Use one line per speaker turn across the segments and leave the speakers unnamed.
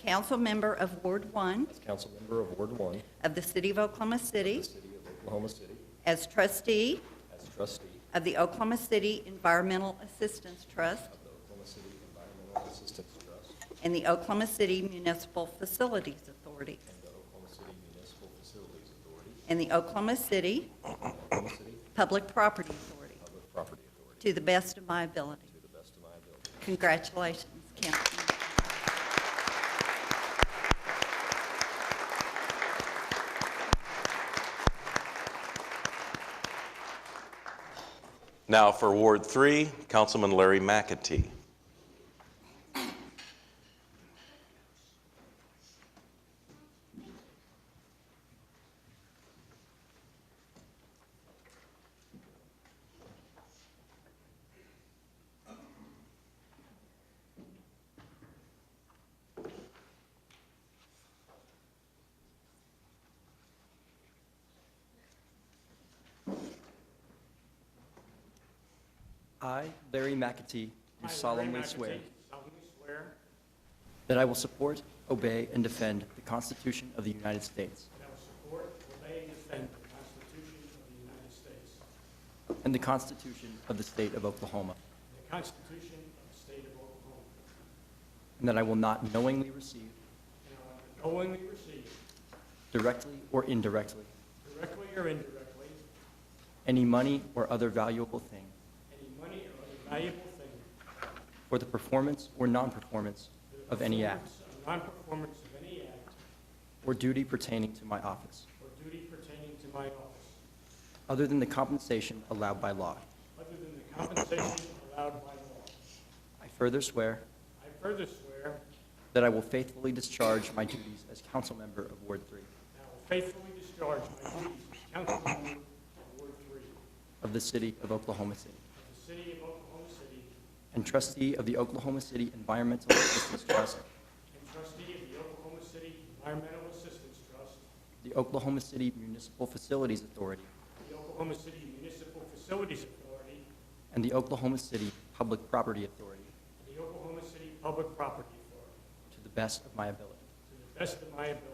council member of Ward 1
as council member of Ward 1 of
of the City of Oklahoma City,
the city of Oklahoma City,
as trustee
as trustee
of the Oklahoma City Environmental Assistance Trust
of the Oklahoma City Environmental Assistance Trust
and the Oklahoma City Municipal Facilities Authority,
and the Oklahoma City Municipal Facilities Authority,
and the Oklahoma City
and the Oklahoma City
Public Property Authority,
Public Property Authority,
to the best of my ability.
to the best of my ability.
Congratulations, Councilman.
Now for Ward 3, Councilman Larry McAtee.
I, Larry McAtee, do
I, Larry
solemnly
McAtee,
swear
solemnly swear
that I will support, obey, and defend the Constitution of the United States
that I will support, obey, and defend the Constitution of the United States,
and the Constitution of the State of Oklahoma,
and the Constitution of the State of Oklahoma,
and that I will not knowingly receive,
and I will knowingly receive,
directly or indirectly,
directly or indirectly,
any money or other valuable thing
any money or other valuable thing
for the performance or non-performance
for the
of any act
performance or Non-performance of any act
or duty pertaining to my office,
or duty pertaining to my office,
other than the compensation allowed by law.
other than the compensation allowed by law.
I further swear
I further swear
that I will faithfully discharge my duties as council member of Ward 3
that I will faithfully discharge my duties as council member of Ward Three of
of the City of Oklahoma City.
the City of Oklahoma City,
and trustee of the Oklahoma City Environmental Assistance Trust,
and trustee of the Oklahoma City Environmental Assistance Trust,
the Oklahoma City Municipal Facilities Authority,
the Oklahoma City Municipal Facilities Authority,
and the Oklahoma City Public Property Authority
and the Oklahoma City Public Property Authority,
to the best of my ability.
to the best of my ability.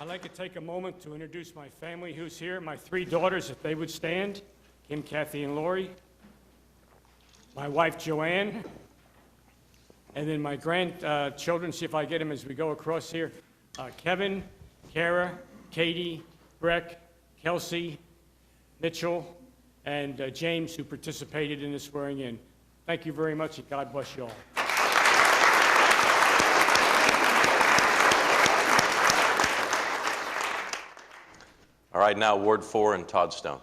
I'd like to take a moment to introduce my family who's here, my three daughters, if they would stand, Kim, Kathy, and Lori, my wife Joanne, and then my grandchildren, see if I get them as we go across here, Uh, Kevin, Kara, Katie, Breck, Kelsey, Mitchell, and uh, James, who participated in the swearing-in. Thank you very much, and God bless you all.
All right, now Ward 4 and Todd Stone.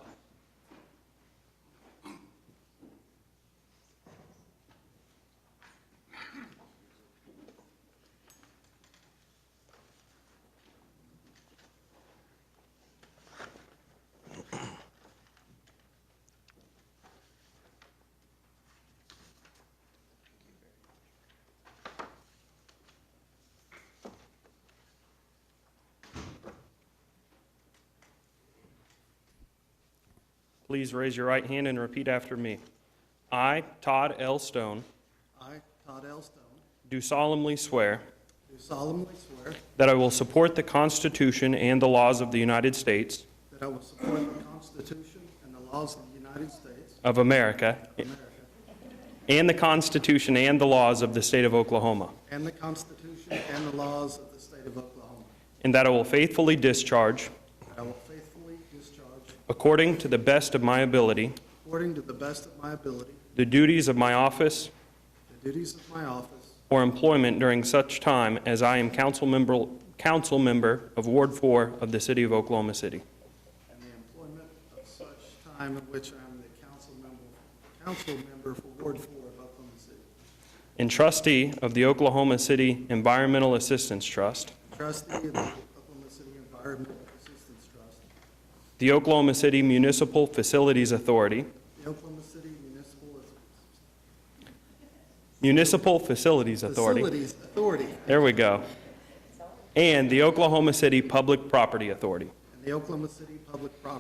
Please raise your right hand and repeat after me. I, Todd L. Stone,
I, Todd L. Stone,
do solemnly swear
do solemnly swear
that I will support the Constitution and the laws of the United States
that I will support the Constitution and the laws of the United States
of America
of America
and the Constitution and the laws of the State of Oklahoma,
and the Constitution and the laws of the State of Oklahoma,
and that I will faithfully discharge,
that I will faithfully discharge,
according to the best of my ability,
according to the best of my ability,
the duties of my office
the duties of my office
or employment during such time as I am council member, council member of Ward 4 of the City of Oklahoma City.
and the employment of such time in which I am the council member, council member for Ward Four of Oklahoma City,
and trustee of the Oklahoma City Environmental Assistance Trust,
trustee of the Oklahoma City Environmental Assistance Trust,
the Oklahoma City Municipal Facilities Authority,
the Oklahoma City Municipal
Municipal Facilities Authority,
Facilities Authority,
there we go, and the Oklahoma City Public Property Authority.
and the Oklahoma City Public Property